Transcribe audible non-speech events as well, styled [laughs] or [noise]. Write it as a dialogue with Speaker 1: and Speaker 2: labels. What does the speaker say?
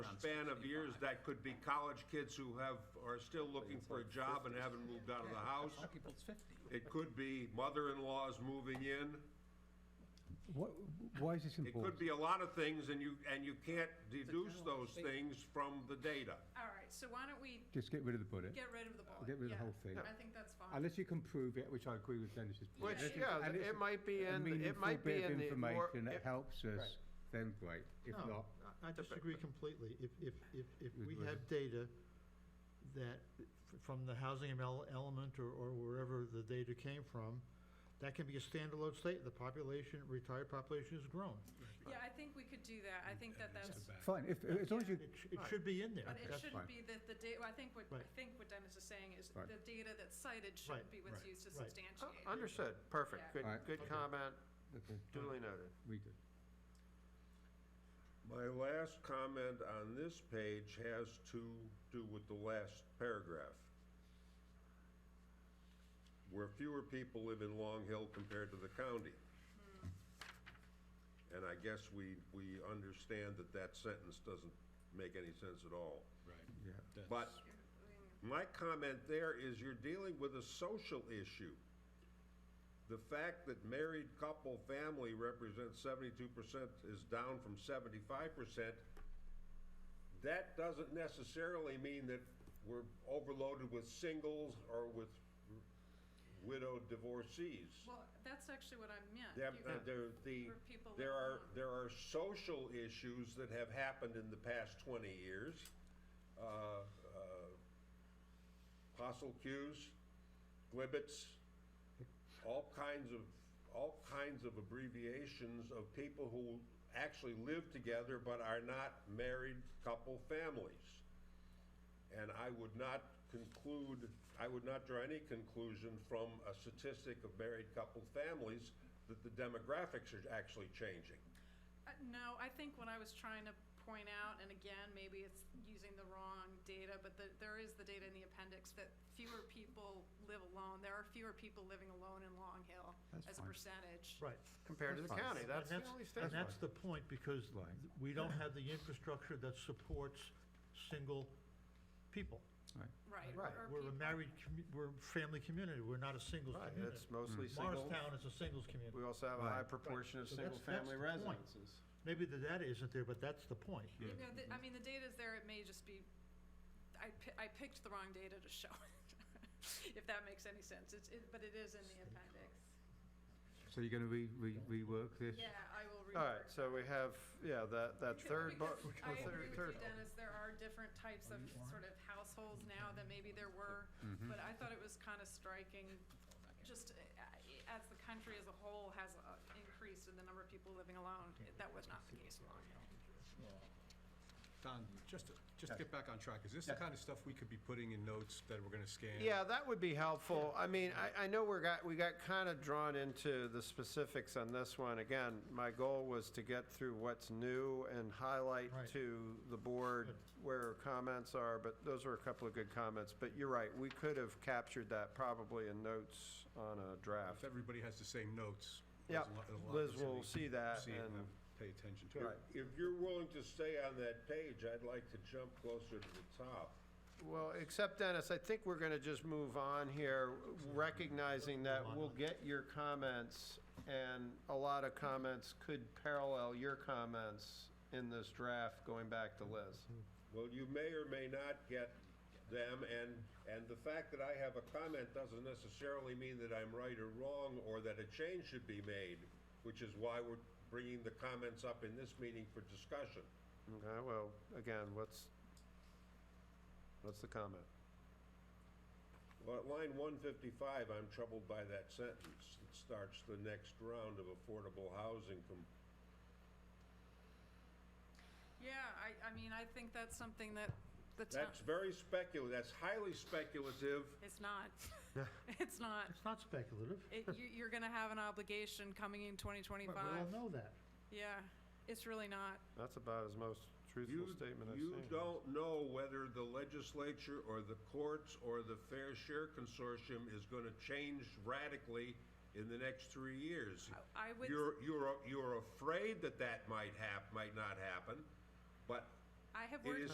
Speaker 1: span of years, that could be college kids who have, are still looking for a job and haven't moved out of the house.
Speaker 2: Some people it's fifty.
Speaker 1: It could be mother-in-law's moving in.
Speaker 3: What, why is this
Speaker 1: It could
Speaker 3: important?
Speaker 1: be a lot of things, and you, and you can't deduce those things from the data.
Speaker 4: All right, so why don't we
Speaker 3: Just get rid of the bullet,
Speaker 4: get rid of the bullet?
Speaker 3: get rid of the
Speaker 4: Yeah,
Speaker 3: whole thing.
Speaker 4: I think that's fine.
Speaker 3: Unless you can prove it, which I agree with Dennis's point.
Speaker 5: Which,
Speaker 4: Yeah,
Speaker 5: yeah,
Speaker 3: and
Speaker 5: th-
Speaker 3: it's
Speaker 5: it might be
Speaker 3: A
Speaker 5: in, the- it
Speaker 3: meaningful
Speaker 5: might
Speaker 3: bit
Speaker 5: be
Speaker 3: of
Speaker 5: in the more.
Speaker 3: information that
Speaker 5: it-
Speaker 3: helps us,
Speaker 2: Right.
Speaker 3: then great. If not,
Speaker 6: No, I- I disagree completely. If, if, if, if
Speaker 3: Would
Speaker 6: we
Speaker 3: work.
Speaker 6: have data that, f- from the housing emel- element or, or wherever the data came from, that can be a standalone state. The population, retired population has grown.
Speaker 4: Yeah, I think we could do that. I think that that's,
Speaker 3: fine, if, as long as you,
Speaker 6: It, sh- it should be in there.
Speaker 4: but it
Speaker 6: That's-
Speaker 4: shouldn't be that the data, I think what, I
Speaker 6: Right.
Speaker 4: think what Dennis is saying is
Speaker 3: Right.
Speaker 4: the data that's cited
Speaker 6: Right.
Speaker 4: shouldn't be what's used to
Speaker 6: Right.
Speaker 4: substantiate.
Speaker 5: Uh, Understood, perfect,
Speaker 4: Yeah.
Speaker 5: good,
Speaker 3: Alright.
Speaker 5: good
Speaker 6: Okay.
Speaker 5: comment,
Speaker 3: okay,
Speaker 5: duly noted.
Speaker 3: we good.
Speaker 1: My last comment on this page has to do with the last paragraph. Where fewer people live in Long Hill compared to the county. And I guess we, we understand that that sentence doesn't make any sense at all.
Speaker 3: Yeah.
Speaker 1: But my comment there is you're dealing with a social issue. The fact that married couple family represents seventy-two percent is down from seventy-five percent. That doesn't necessarily mean that we're overloaded with singles or with widowed divorcees.
Speaker 4: Well, that's actually what I meant.
Speaker 1: There,
Speaker 4: You-
Speaker 1: uh, there, the,
Speaker 4: Where people
Speaker 1: there
Speaker 4: live
Speaker 1: are,
Speaker 4: alone.
Speaker 1: there are social issues that have happened in the past twenty years. Uh, uh, Hostile cues, glibbits, all kinds of, all kinds of abbreviations of people who actually live together but are not married couple families. And I would not conclude, I would not draw any conclusion from a statistic of married couple families that the demographics are actually changing.
Speaker 4: Uh, No, I think what I was trying to point out, and again, maybe it's using the wrong data, but the, there is the data in the appendix that fewer people live alone. There are fewer people living alone in Long Hill
Speaker 3: That's
Speaker 4: as a
Speaker 3: fine.
Speaker 4: percentage.
Speaker 6: Right.
Speaker 5: Compared to the
Speaker 3: That's fine.
Speaker 5: county, that's the
Speaker 6: And
Speaker 5: only
Speaker 6: And
Speaker 5: statement.
Speaker 6: that's the point, because th-
Speaker 3: Right.
Speaker 6: we don't have the infrastructure that supports single people.
Speaker 4: Right.
Speaker 5: Right.
Speaker 4: or
Speaker 6: We're a
Speaker 4: people-
Speaker 6: married, commu- we're a family community, we're not a singles
Speaker 5: Right,
Speaker 6: community.
Speaker 5: it's mostly single,
Speaker 6: Hmm. Morristown is a singles community.
Speaker 5: we also have a high
Speaker 3: Right.
Speaker 5: proportion of
Speaker 6: So that's-
Speaker 5: single-family
Speaker 6: that's the point.
Speaker 5: residences.
Speaker 6: Maybe the data isn't there, but that's the point.
Speaker 4: You know, the, I mean, the data's there, it may just be, I pi- I picked the wrong data to show it, [laughs] if that makes any sense. It's, it, but it is in the appendix.
Speaker 3: So you're gonna re, re, rework this?
Speaker 4: Yeah, I will read.
Speaker 5: All right, so we have, yeah, that, that
Speaker 4: [laughs]
Speaker 5: third, bu-
Speaker 4: I
Speaker 5: third-
Speaker 4: agree with
Speaker 5: third
Speaker 4: you, Dennis, there are different types of sort of households now that maybe there were,
Speaker 5: Mm-hmm.
Speaker 4: but I thought it was kind of striking, just uh, uh, as the country as a whole has uh, increased in the number of people living alone, that was not the case in Long Hill.
Speaker 2: Don, just to, just to get back on track, is this the kind of stuff we could be putting in notes that we're gonna scan?
Speaker 5: Yeah, that would be helpful. I mean, I, I know we're got, we got kind of drawn into the specifics on this one. Again, my goal was to get through what's new and highlight
Speaker 6: Right.
Speaker 5: to the board
Speaker 6: Good.
Speaker 5: where comments are, but those were a couple of good comments. But you're right, we could have captured that probably in notes on a
Speaker 2: If
Speaker 5: draft.
Speaker 2: everybody has the same notes.
Speaker 5: Yeah,
Speaker 2: there's a lot- there's a lot
Speaker 5: Liz
Speaker 2: that's gonna
Speaker 5: will
Speaker 2: be-
Speaker 5: see that
Speaker 2: see it
Speaker 5: and,
Speaker 2: pay attention to it.
Speaker 5: Right.
Speaker 1: If you're willing to stay on that page, I'd like to jump closer to the top.
Speaker 5: well, except Dennis, I think we're going to just move on here, recognizing that we'll get your comments and a lot of comments could parallel your comments in this draft going back to Liz.
Speaker 1: Well, you may or may not get them, and, and the fact that I have a comment doesn't necessarily mean that I'm right or wrong, or that a change should be made, which is why we're bringing the comments up in this meeting for discussion.
Speaker 5: Okay, well, again, what's, what's the comment?
Speaker 1: Well, at line one fifty-five, I'm troubled by that sentence. It starts the next round of affordable housing com-
Speaker 4: Yeah, I, I mean, I think that's something that the town,
Speaker 1: That's very speculative, that's highly speculative.
Speaker 4: it's not, [laughs] it's not.
Speaker 6: It's not speculative.
Speaker 4: It, you, you're gonna have an obligation coming in twenty
Speaker 6: We
Speaker 4: twenty-five.
Speaker 6: all know that.
Speaker 4: Yeah, it's really not.
Speaker 5: That's about as most truthful
Speaker 1: You,
Speaker 5: statement I've seen.
Speaker 1: you don't know whether the legislature or the courts or the Fair Share Consortium is gonna change radically in the next three years.
Speaker 4: I would,
Speaker 1: You're, you're, you're afraid that that might hap, might not happen, but
Speaker 4: I have
Speaker 1: it
Speaker 4: worked
Speaker 1: is